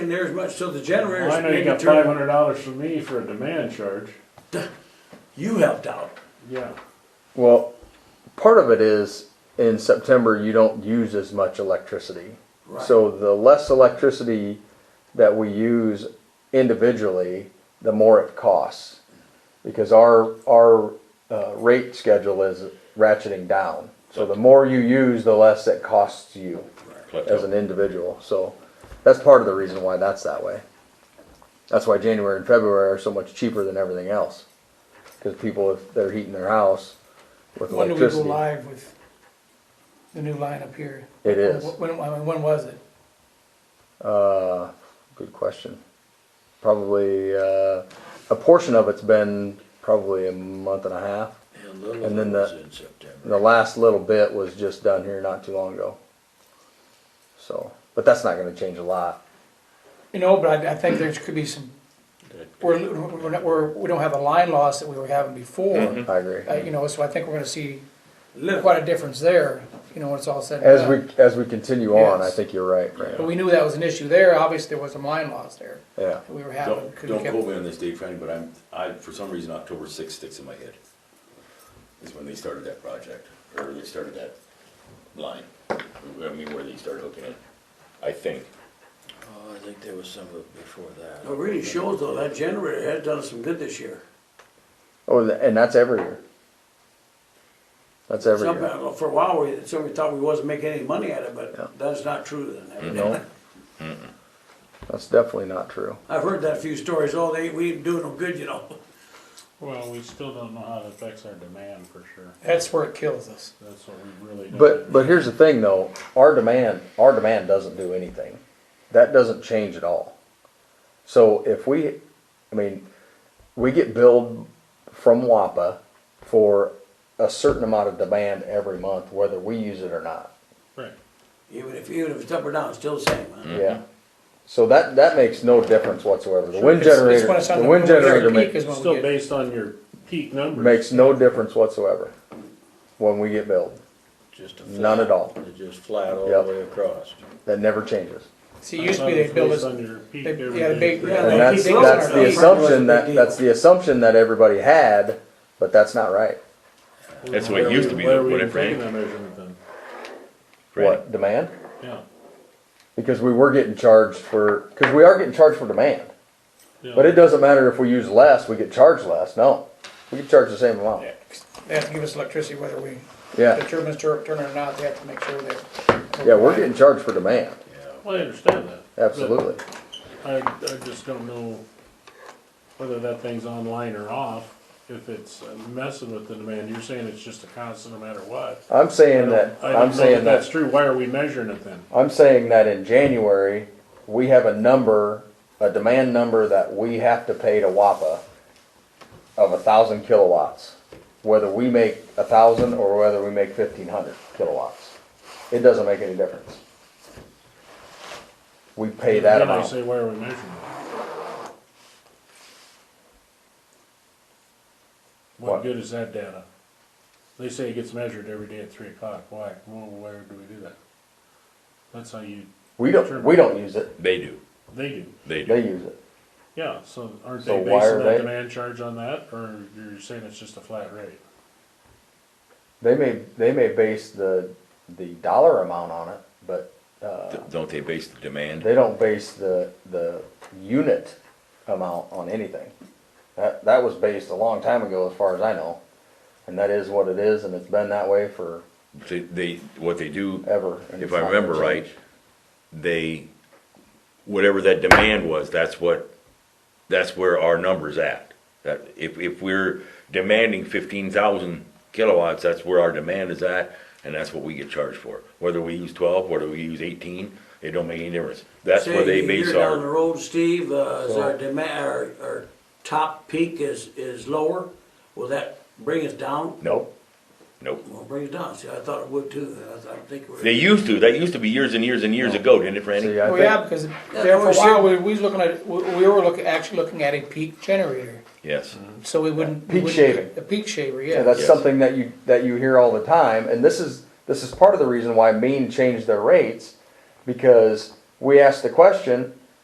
in there as much, so the generators. I know you maybe got turn- five hundred dollars from me for a demand charge, You helped out. yeah. Well, part of it is in September you don't use as much electricity. Right. So the less electricity that we use individually, the more it costs. Because our our uh, rate schedule is ratcheting down. So the more you use, the less it costs you as an individual. So that's part of the reason why that's that way. That's why January and February are so much cheaper than everything else. Because people, if they're heating their house with When do we go electricity, live with the new line up here? it is. When, when when was it? Uh, good question. Probably, uh, a portion of it's been probably a month and a half. And little And then was the- in September. The last little bit was just done here not too long ago. So, but that's not gonna change a lot. You know, but I, I think there could be some, we're, we're, not- we're, we don't have the line loss that we were having before. I agree. Mm. Uh, you know, so I think we're gonna see Little, quite a difference there, you know, when it's all said and As done. we, as we continue on, I Yes. think you're right, Fran. But we knew that was an issue there, obviously there was some line loss there Yeah. that we were having. Don't, 'cause we don't kept- quote me on this date, Franny, but I'm, I, for some reason, October sixth sticks in my head. Is when they started that project, or they started that line, I mean, where they started hooking it, I think. Oh, I think there was some of it before that. it really shows though, that generator has done some good this year. Oh, th- and that's every year. That's every Some, year. uh, for a while, we, somebody thought we wasn't making any money at it, Yeah. but that's not true then. No. That's definitely not true. I've heard that few stories, oh, they, we ain't doing no good, you know. Well, we still don't know how it affects our demand for sure, That's where it kills us. that's what we really don't. But but here's the thing though, our demand our demand doesn't do anything. That doesn't change at all. So if we I mean, we get billed from WAPA for a certain amount of demand every month, whether we use it or not. Right, Even if, even if it's up or down, it's still the same, huh? Mm-hmm. Yeah. So that that makes no difference whatsoever. The wind It's- it's generator when it's on the wind when it's at generator peak makes is when we still get- based on your peak numbers. makes no difference whatsoever when we get billed. Just a None at all. flat- Just flat all Yep. the way across. That never changes. See, it used to be they build Based us, on your peak they- every yeah, day. they- yeah, Well, And that's, keep going. that's the Keep going. assumption that, that's the assumption that everybody had, but that's not right. That's the way it used to be, Where are though, we what even if, taking right? that measurement then? What, demand? Yeah, Because we were getting charged for, because we are getting charged for demand. yeah. But it doesn't matter if we use less, we get charged less, no. We get charged the same amount, they have to give us electricity whether we, the yeah. turbines tur- turn or not, they have to make sure that. Yeah, we're getting charged for demand, Well, I understand that. but absolutely. I, I just don't know whether that thing's online or off, if it's messing with the demand, you're saying it's just a constant no matter what. I'm saying I that, don't- I don't I'm know saying That's that, true, why are we measuring it then? I'm saying that in January, we have a number, a demand number that we have to pay to WAPA of a thousand kilowatts, whether we make a thousand or whether we make fifteen hundred kilowatts. It doesn't make any difference. We pay that Then I amount. say, why are we measuring it? What? What good is that data? They say it gets measured every day at three o'clock, why, well, where do we do that? That's how you, We don't, we don't use it, They do, they do, they do. they use it. yeah, so aren't So they why basing are that they- demand charge on that, or you're saying it's just a flat rate? They may, they may base the, the dollar amount on it, but, uh, Th- Don't they base the demand? they don't base the, the unit amount on anything. That, that was based a long time ago, as far as I know, and that is what it is, and it's been that way forever. They, they- what they do, and it's if I not gonna remember right, change. they, whatever that demand was, that's what, that's where our number's at. That, if, if we're demanding fifteen thousand kilowatts, that's where our demand is at, and that's what we get charged for. Whether we use twelve, whether we use eighteen, it don't make any difference. That's Say where they a base year Down the our, road, Steve, uh, is So- our demand, our, our top peak is, is lower, will that bring us down? nope, nope. Well, bring us down, see, I thought it would too, I thought, I think we're. They used to, that used to be years and years and years ago, didn't it, Randy? See, I Well, Oh, yeah, think, because Yeah, there for we a should- while, we we was looking at, we we were looking, actually looking at a peak generator, Yes. Mm-hmm. so we wouldn't. we Peak wouldn't- shaving. A peak shaver, yeah, yeah. that's Yes. something that you, that you hear all the time, and this is, this is part of the reason why Maine changed their rates, because we asked the question,